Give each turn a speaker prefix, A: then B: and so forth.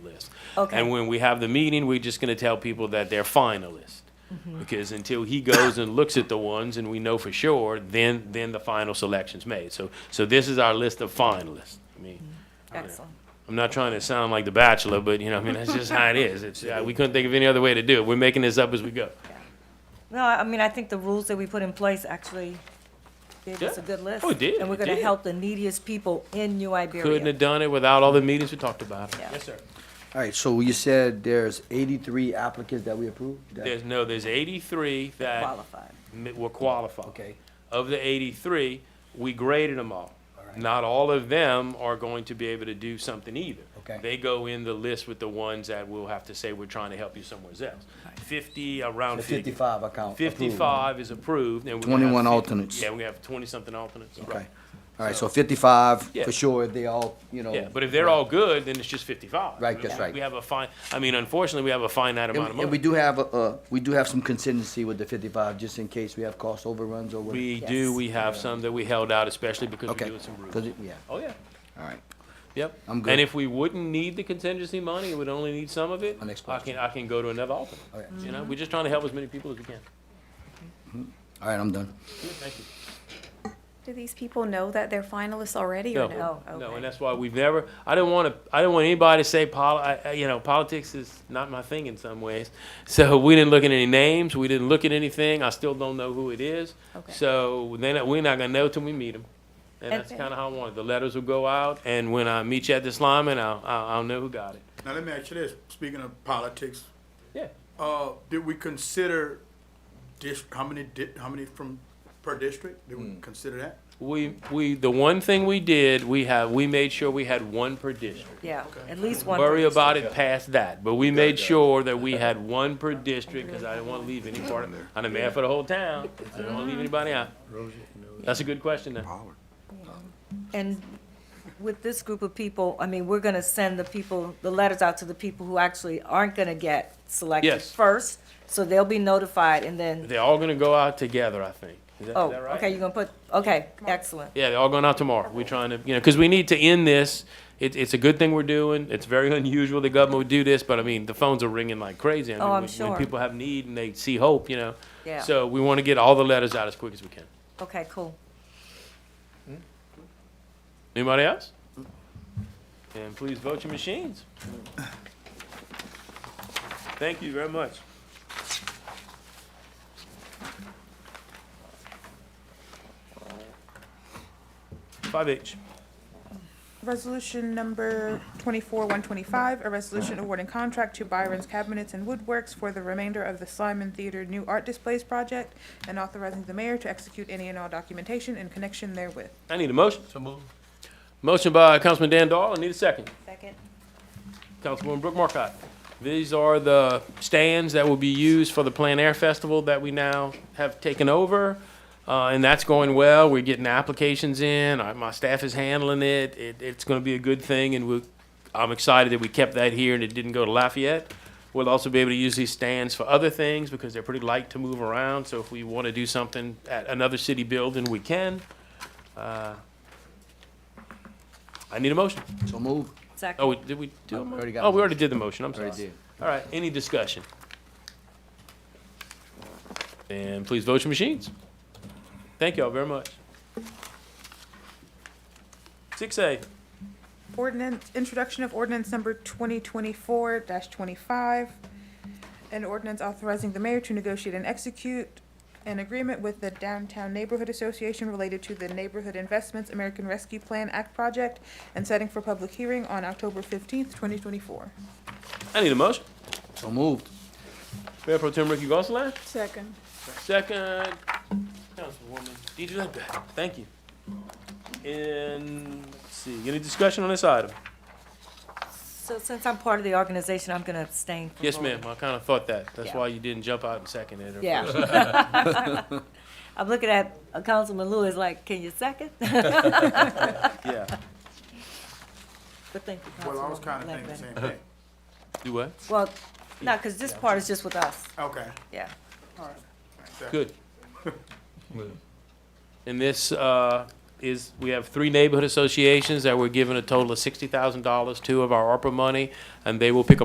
A: finalist.
B: Okay.
A: And when we have the meeting, we're just gonna tell people that they're finalists.
B: Mm-hmm.
A: Because until he goes and looks at the ones and we know for sure, then, then the final selection's made. So, so this is our list of finalists. I mean,
B: Mm-hmm. Excellent.
A: I'm not trying to sound like The Bachelor, but you know, I mean, that's just how it is. It's, uh, we couldn't think of any other way to do it. We're making this up as we go.
B: No, I I mean, I think the rules that we put in place actually gave us a
A: Yeah.
B: good list.
A: Oh, it did,
B: And we're
A: it
B: gonna
A: did.
B: help the neediest people in New Iberia.
A: Couldn't have done it without all the meetings we talked about.
B: Yeah. Yes,
A: sir.
C: All right, so you said there's 83 applicants that we approved? That-
A: There's, no, there's eighty-three that
B: Qualified.
A: mi- were qualified.
C: Okay.
A: Of the eighty-three, we graded them all.
C: Alright.
A: Not all of them are going to be able to do something either.
C: Okay.
A: They go in the list with the ones that we'll have to say we're trying to help you somewhere else. Fifty, around
C: The
A: fifty.
C: 55 account. approved.
A: Fifty-five is approved and we're gonna have
C: 21
A: 50
C: alternates.
A: Yeah, we have twenty-something alternates. right.
C: Okay. All right, so 55,
A: Yeah.
C: for sure, they all, you know.
A: Yeah, but if they're all good, then it's just fifty-five.
C: Oh. Right,
A: I
C: that's
A: mean,
C: right.
A: We have a fine, I mean, unfortunately, we have a finite
C: And
A: amount of
C: we- and we
A: money.
C: do have, a- a- we do have some contingency with the 55, just in case we have cost overruns or what.
A: We do,
B: Yes.
A: we have some that we held out, especially because we're
C: Okay.
A: doing some
C: 'Cause
A: roofs.
C: it- Yeah,
A: Oh, yeah,
C: all right.
A: yep.
C: I'm good.
A: And if we wouldn't need the contingency money, we would only need some of it,
C: My next
A: I
C: question.
A: can, I can go to another alternate.
C: Okay.
A: You know, we're just trying to help as many people as we can.
C: All right, I'm done.
A: Good, Thank you.
D: Do these people know that they're finalists already or no?
B: No,
A: No,
B: okay.
A: and that's why we've never, I don't want to, I don't want anybody to say poli, I- I- you know, politics is not my thing in some ways. So we didn't look at any names, we didn't look at anything, I still don't know who it is.
D: Okay.
A: So then, we're not gonna know till we meet them. And that's
D: Okay.
A: kind of how I want it, the letters will go out, and when I meet you at this lineman, I'll, I'll I'll know who got it.
E: Now, let me ask you this, speaking of politics,
A: Yeah,
E: uh, did we consider dis, how many di, how many from per district? Did we consider that?
A: we, we, the one thing we did, we have, we made sure we had one per district.
B: Yeah, at least one.
A: Worry
B: person.
A: about it past that, but we made sure that we had one per district, because I didn't want to leave any part, I'm the mayor for the whole town, I didn't want to leave anybody out. That's a good question then.
B: And with this group of people, I mean, we're gonna send the people, the letters out to the people who actually aren't gonna get selected
A: Yes.
B: first. So they'll be notified and then,
A: They're all gonna go out together, I think. Is that, is
B: oh,
A: that right?
B: okay, you're gonna put, okay, excellent.
A: Yeah, they're all going out tomorrow. We're trying to, you know, because we need to end this. It, it's a good thing we're doing. It's very unusual the government would do this, but I mean, the phones are ringing like crazy. I mean,
B: Oh, I'm
A: when,
B: sure.
A: When people have need and they see hope, you know.
B: Yeah.
A: So we want to get all the letters out as quick as we can.
B: Okay, cool.
A: Anybody else? And please vote your machines. Thank you very much. Five H.
F: Resolution number twenty-four one twenty-five, a resolution awarding contract to Byron's Cabinets and Woodworks for the remainder of the Slyman Theater New Art Displays Project and authorizing the mayor to execute any and all documentation in connection therewith.
A: I need a motion. Motion by Councilman Dan Dahl. I need a second.
B: Second.
A: Councilwoman Brooke Markcott. These are the stands that will be used for the Plan Air Festival that we now have taken over. Uh, and that's going well. We're getting applications in. I, my staff is handling it. it it's going to be a good thing. And we, I'm excited that we kept that here and it didn't go to Lafayette. We'll also be able to use these stands for other things because they're pretty light to move around. So if we want to do something at another city building, we can. Uh, I need a motion.
C: So move.
A: Oh,
B: Second.
A: we- did we do
C: I
A: a
C: already
A: motion?
C: got
A: Oh,
C: a
A: we already did the motion, I'm sorry.
C: Already did.
A: All right, any discussion? And please vote your machines. Thank y'all very much. Six A,
F: Ordinance, introduction of ordinance number twenty twenty-four twenty-five. An ordinance authorizing the mayor to negotiate and execute an agreement with the Downtown Neighborhood Association related to the Neighborhood Investments American Rescue Plan Act project and setting for public hearing on October fifteenth, twenty twenty-four.
A: I need a motion.
C: So moved.
A: Mayor Pro Tem Ricky Gonsalas,
F: Second.
A: second, Councilwoman Deidre Ledbetter, thank you. And, let's see, any discussion on this item?
B: So since I'm part of the organization, I'm gonna abstain from
A: Yes,
B: voting.
A: ma'am, I kinda thought that, that's
B: Yeah.
A: why you didn't jump out and second it. or-
B: Yeah. I'm looking at uh, Councilman Lewis like, can you second?
A: Yeah,
B: But thank you,
E: Well, I was
B: Councilwoman
E: kinda thinking the
B: Ledbetter.
E: same thing.
A: do what?
B: Well, no, because this part is just with us,
E: Okay.
B: yeah.
A: Good. And this, uh, is, we have three neighborhood associations that we're giving a total of sixty thousand dollars to of our ARPA money, and they will pick up.